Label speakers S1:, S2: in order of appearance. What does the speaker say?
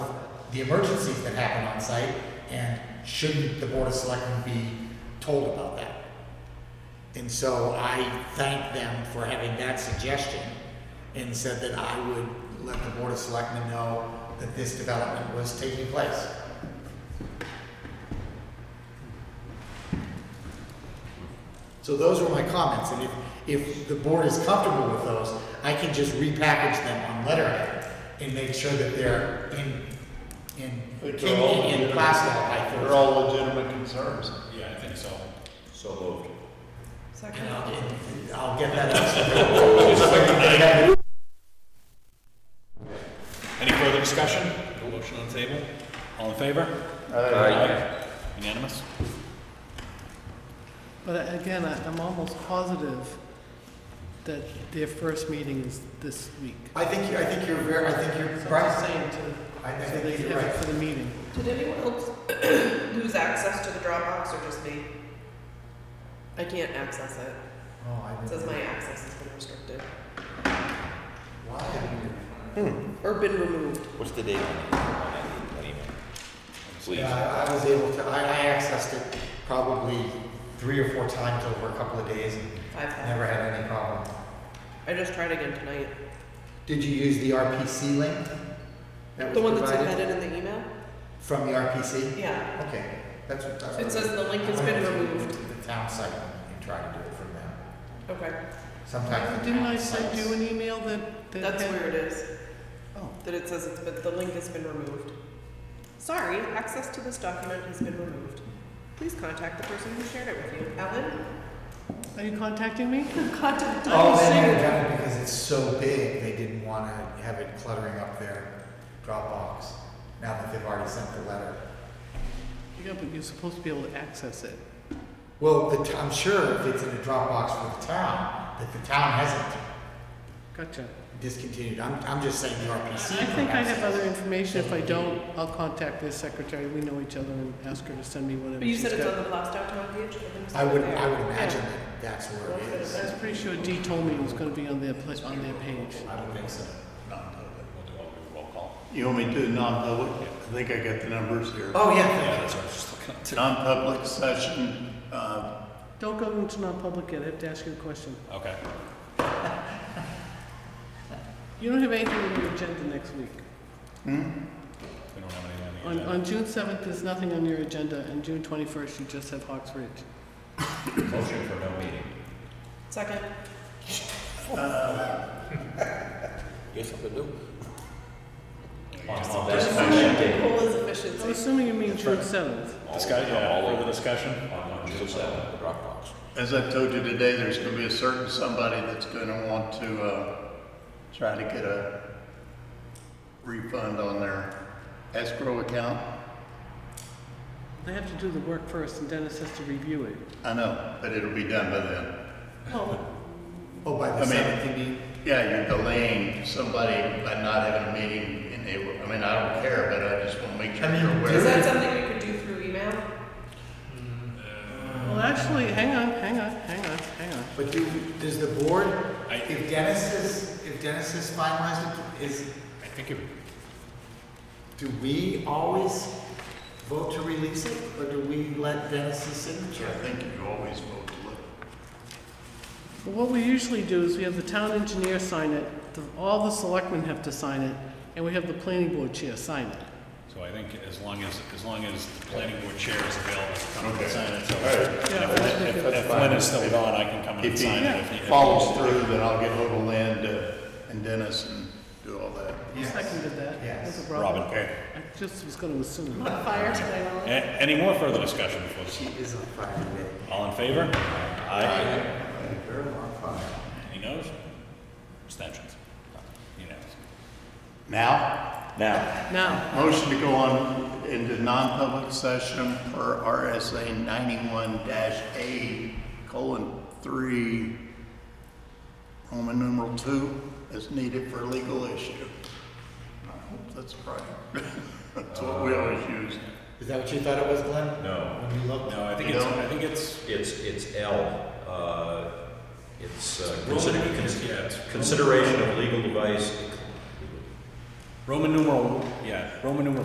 S1: the emergencies that happen on site, and shouldn't the Board of Selectmen be told about that? And so I thanked them for having that suggestion and said that I would let the Board of Selectmen know that this development was taking place. So those were my comments, and if, if the board is comfortable with those, I can just repackage them on letterhead and make sure that they're in, in,
S2: They're all
S1: in
S2: legitimate-
S1: plastic by Thursday.
S2: They're all legitimate concerns.
S3: Yeah, I think so.
S4: So moved.
S1: And
S5: Yeah.
S1: I'll get- I'll get that up.
S3: Any further discussion? No motion on the table? All in favor? Aye. Unanimous?
S6: But again, I- I'm almost positive that their first meeting is this week.
S1: I think, you- I think you're very, I think
S6: So
S1: you're
S6: I'm
S1: right.
S6: just saying to,
S1: I I
S6: so they
S1: think
S6: have
S1: you're
S6: it
S1: right.
S6: for the meeting.
S5: Did anyone else lose access to the Dropbox or just me? I can't access it.
S1: Oh, I
S5: It says
S1: didn't-
S5: my access has been restricted
S1: Why have you?
S5: or been removed.
S4: What's the date on that email? Please.
S1: Yeah, I I was able to, I, I accessed it probably three or four times over a couple of days and
S5: I've had.
S1: never had any problem.
S5: I just tried again tonight.
S1: Did you use the RPC link? that
S5: The
S1: was
S5: one that's
S1: provided?
S5: embedded in the email?
S1: From the RPC?
S5: Yeah.
S1: Okay, that's what, that's what.
S5: It says the link has
S1: I went
S5: been
S1: to-
S5: removed.
S1: to The town site and try to do it from there.
S5: Okay.
S1: Sometimes. the
S6: Didn't
S1: town
S6: I send
S1: sites-
S6: you an email that, that
S5: That's
S6: had-
S5: where it is.
S6: Oh,
S5: That it says it's but the link has been removed. Sorry, access to this document has been removed. Please contact the person who shared it with you. Ellen?
S6: are you contacting me?
S5: Contact.
S1: Oh, they had done it because it's so big, they didn't want to have it cluttering up their Dropbox, now that they've already sent the letter.
S6: Yeah, but you're supposed to be able to access it.
S1: Well, the, t- I'm sure if it's in a Dropbox for the town, that the town hasn't
S6: Gotcha.
S1: discontinued. I'm, I'm just saying the
S6: I
S1: RPC.
S6: think I have
S1: perhaps.
S6: other information. If I don't, I'll contact their secretary. We know each other and ask her to send me whatever
S5: But you
S6: she's
S5: said it's on
S6: got.
S5: the blast out town page? I think it's
S1: I would,
S5: there.
S1: I would imagine that that's where it
S6: I
S1: is.
S6: was pretty sure Dee told me it was gonna be on their, pla- on their page.
S1: I would think so.
S3: Not until then. We'll do all the roll call.
S2: You want me to non-public? I think I got the numbers here.
S1: Oh,
S3: Yeah,
S1: yeah.
S3: that's what I was just looking up to.
S2: Non-public session, uh,
S6: Don't go into non-public yet. I have to ask you a question.
S3: Okay.
S6: You don't have anything on your agenda next week.
S3: We don't have anything on
S6: On,
S3: the agenda.
S6: on June seventh, there's nothing on your agenda, and June twenty-first, you just have Hawks Ridge.
S3: Motion for no meeting.
S5: Second.
S4: You have something to do?
S3: All
S5: That's
S3: those-
S5: my big hole is
S6: I'm
S5: efficiency.
S6: assuming you mean June seventh.
S3: Discuss,
S4: All
S3: yeah,
S4: over.
S3: further discussion?
S4: On June seventh, the Dropbox.
S2: as I've told you today, there's gonna be a certain somebody that's gonna want to, uh, try to get a refund on their escrow account.
S6: They have to do the work first, and Dennis has to review it.
S2: I know, but it'll be done by then.
S1: Oh, by
S2: I
S1: the
S2: mean-
S1: seventh, you mean?
S2: Yeah, you're delaying somebody by not having a meeting, and they, I mean, I don't care, but I just wanna make sure
S1: I mean,
S2: you're aware.
S5: Is that something you could do through email?
S6: Well, actually, hang on, hang on, hang on, hang on.
S1: But do, does the board,
S3: I-
S1: if Dennis is, if Dennis is finalized, it, is,
S3: I think it would
S1: do we always vote to release it, or do we let Dennis's signature?
S2: I think you always vote to look.
S6: Well, What we usually do is we have the town engineer sign it, the- all the selectmen have to sign it, and we have the planning board chair sign it.
S3: So I think as long as, as long as the planning board chair is available to come
S2: Okay.
S3: and sign it, so
S6: Yeah, I think it-
S3: if Lynn is still gone, I can come in and
S2: If
S3: sign it.
S2: he
S3: if
S2: follows through, then I'll get hold of Lynn uh, and Dennis and do all that.
S6: I seconded that.
S1: Yes.
S6: No problem.
S3: Robin, okay.
S6: I just was gonna assume.
S5: Fire today,
S3: A- Any more further discussion before this?
S1: She is on fire today.
S3: All in favor? Aye.
S1: Very on fire.
S3: Any noes? Abstentions? Unanimous.
S2: Now,
S3: Now,
S6: Now,
S2: motion to go on into non-public session per RSA ninety-one A colon three, Roman numeral two, as needed for legal issue. I hope that's right. That's what we always use.
S1: Is that what you thought it was, Glenn?
S4: No.
S1: When you looked?
S3: no, I think it's, I think it's
S4: It's, it's L, uh, it's uh,
S3: Roman
S4: consider-
S3: numerals,
S4: cons-
S3: yeah, it's-
S4: consideration of legal device
S3: Roman numeral, yeah, Roman numeral